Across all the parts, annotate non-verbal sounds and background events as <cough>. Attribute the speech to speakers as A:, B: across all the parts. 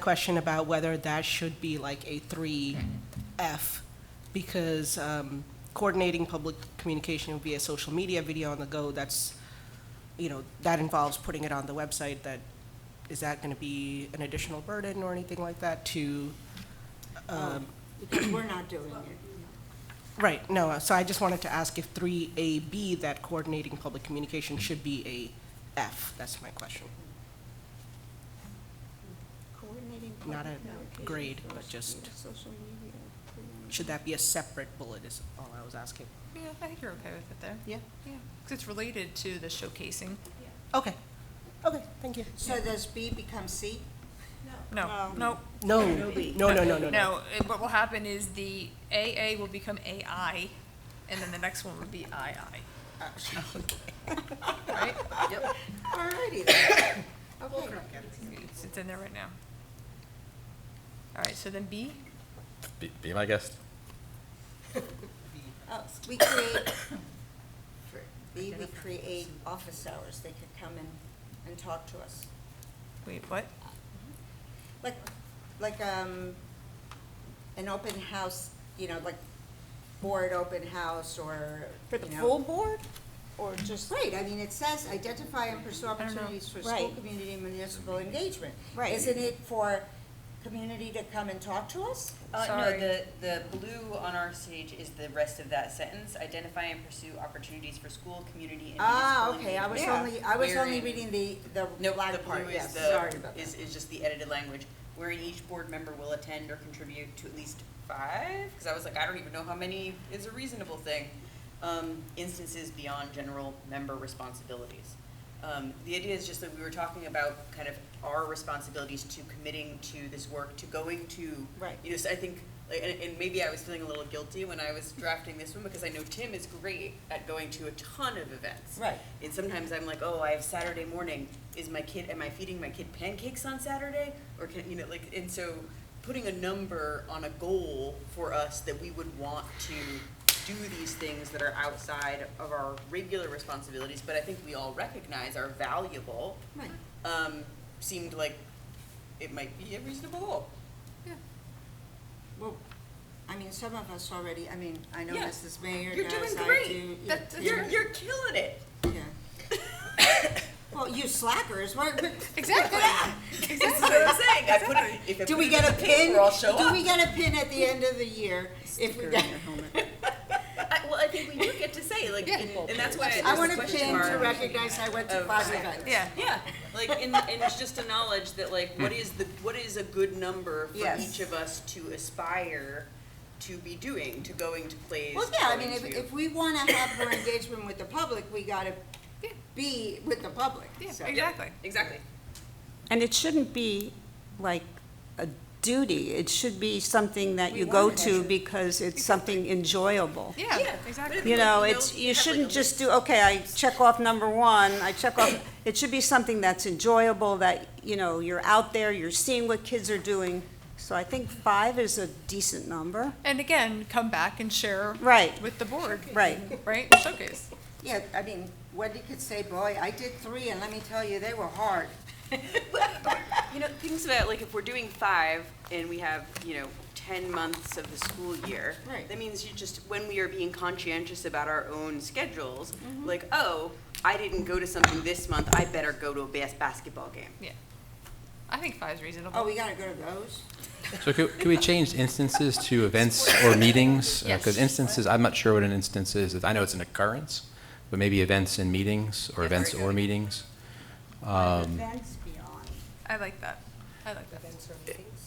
A: question about whether that should be like a three F, because um, coordinating public communication via social media, video on the go, that's, you know, that involves putting it on the website, that, is that gonna be an additional burden or anything like that to, um,
B: because we're not doing it.
A: right, no, uh, so I just wanted to ask if three A B, that coordinating public communication should be a F, that's my question.
B: Coordinating
A: Not a
B: public communication,
A: grade, but
B: social-
A: just-
B: Social media. coordinating-
A: Should that be a separate bullet is all I was asking.
C: Yeah, I think you're okay with it there.
A: Yeah?
C: Yeah, 'cause it's related to the showcasing.
A: Okay, okay, thank you.
B: So does B become C?
C: No,
B: Um,
C: no.
A: No, no, no, no, no, no.
C: No, it- what will happen is the AA will become AI, and then the next one would be II. Right?
B: Alrighty then. Okay.
C: It's, it's in there right now. All right, so then B,
D: Be, be my guest.
B: Uh, We create, for B, we create office hours. They could come in and talk to us.
C: wait, what?
B: Like, like, um, an open house, you know, like board open house or,
E: For the
B: you know.
E: full board, or just,
B: Right, I mean, it says identify and pursue
C: don't know.
B: opportunities for school,
E: Right.
B: community, and municipal engagement.
E: Right.
B: Isn't it for community to come and talk to us?
F: Uh, no,
C: Sorry.
F: the, the blue on our stage is the rest of that sentence, identify and pursue opportunities for school, community, and
B: Ah,
F: municipal
B: okay, I was
F: engagement.
B: only, I was only
F: Wherein-
B: reading the, the
F: Nope, the
B: black part,
F: blue is
B: yes,
F: the,
B: sorry about
F: is,
B: that.
F: is just the edited language, wherein each board member will attend or contribute to at least five, because I was like, I don't even know how many is a reasonable thing, um, instances beyond general member responsibilities. Um, the idea is just that we were talking about kind of our responsibilities to committing to this work, to going to,
B: Right.
F: you know, so I think, like, and, and maybe I was feeling a little guilty when I was drafting this one, because I know Tim is great at going to a ton of events.
B: Right.
F: And sometimes I'm like, oh, I have Saturday morning. Is my kid? Am I feeding my kid pancakes on Saturday? Or can you know like? And so, putting a number on a goal for us that we would want to do these things that are outside of our regular responsibilities, but I think we all recognize are valuable.
B: Right.
F: Um, seemed like it might be a reasonable goal.
B: Well, I mean, some of us already, I mean, I know
F: Yeah.
B: Mrs. Mayor
F: You're
B: does,
F: doing
B: I do.
F: great.
B: yeah,
F: That's,
B: yeah,
F: you're you're
B: <laughs>
F: killing it.
B: yeah. Well, you slackers,
F: <laughs>
B: what, what-
C: Exactly.
F: That's what I'm saying. I put it, if
B: <laughs>
F: I
B: do
F: put
B: we
F: it in
B: get a
F: the
B: pin?
F: paper, I'll show up.
B: Do we get a pin at the end of the year? If we get,
F: I, well, I think we do get to say like, and, and that's why I,
B: <laughs> I want a
F: just
B: pin to
F: mark.
B: recognize I went to
F: of-
B: five events.
C: Yeah,
F: Yeah, like, and, and it's just a knowledge that like, what is the, what is a good number for
B: Yes.
F: each of us to aspire to be doing, to going to plays?
B: Well, yeah, I
F: going
B: mean, if,
F: to-
B: if we want to have more engagement with the public, we got to
C: Yeah.
B: be with the public.
C: yeah,
B: so.
C: exactly.
F: Exactly.
G: And it shouldn't be like a duty, it should be something that
B: We
G: you
B: want
G: go
B: to
G: to
B: measure.
G: because it's something enjoyable.
C: Yeah,
F: But
C: exactly.
F: if-
G: You know,
F: you know,
G: it's,
F: you
G: you
F: have, like, a
G: shouldn't
F: list.
G: just do, okay, I check off number one, I check off, it should be something that's enjoyable, that, you know, you're out there, you're seeing what kids are doing. So I think five is a decent number.
C: And again, come back and share
G: Right.
C: with the board,
G: Right.
C: right? Showcase.
B: Yeah, I mean, Wendy could say, boy, I did three, and let me tell you, they were hard.
F: You know, things about like if we're doing five and we have, you know, ten months of the school year.
B: Right.
F: That means you just, when we are being conscientious about our own schedules, like, oh, I didn't go to something this month, I better go to a bas- basketball game.
C: Yeah. I think five's reasonable.
B: Oh, we got to go to those?
D: So could, could we change instances to events or meetings? Because
C: Yes.
D: instances, I'm not sure what an instance is. I know it's an occurrence, but maybe events and meetings or events or meetings.
B: Events beyond.
C: I like that. I like that. Events.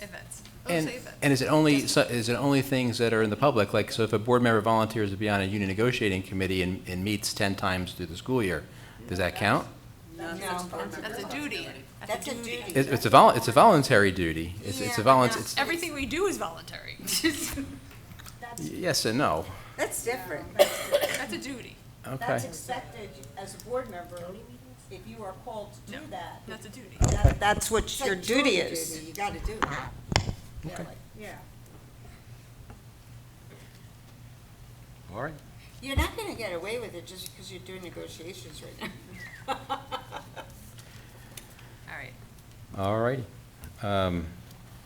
C: Events. Let's
D: And,
C: say events.
D: and is it only, so- is it only things that are in the public? Like, so if a board member volunteers to be on a union negotiating committee and, and meets 10 times through the school year, does that count?
C: That's a duty.
B: That's a duty.
D: It- It's a vol, it's a voluntary duty. It's, it's a
B: Yeah, but
D: volun,
B: not-
D: it's,
C: Everything we do is voluntary. <laughs>
D: yes and no.
B: That's different.
C: That's a duty.
D: Okay.
E: expected as a board member, if you are called to do that.
C: That's a duty.
G: That's
B: It's
G: what
B: like
G: your duty
B: jury
G: is.
B: duty, You got to do that.
E: Yeah.
D: All right.
B: You're not going to get away with it just because you're doing negotiations right now. <laughs>
C: All right.
D: All righty. Um,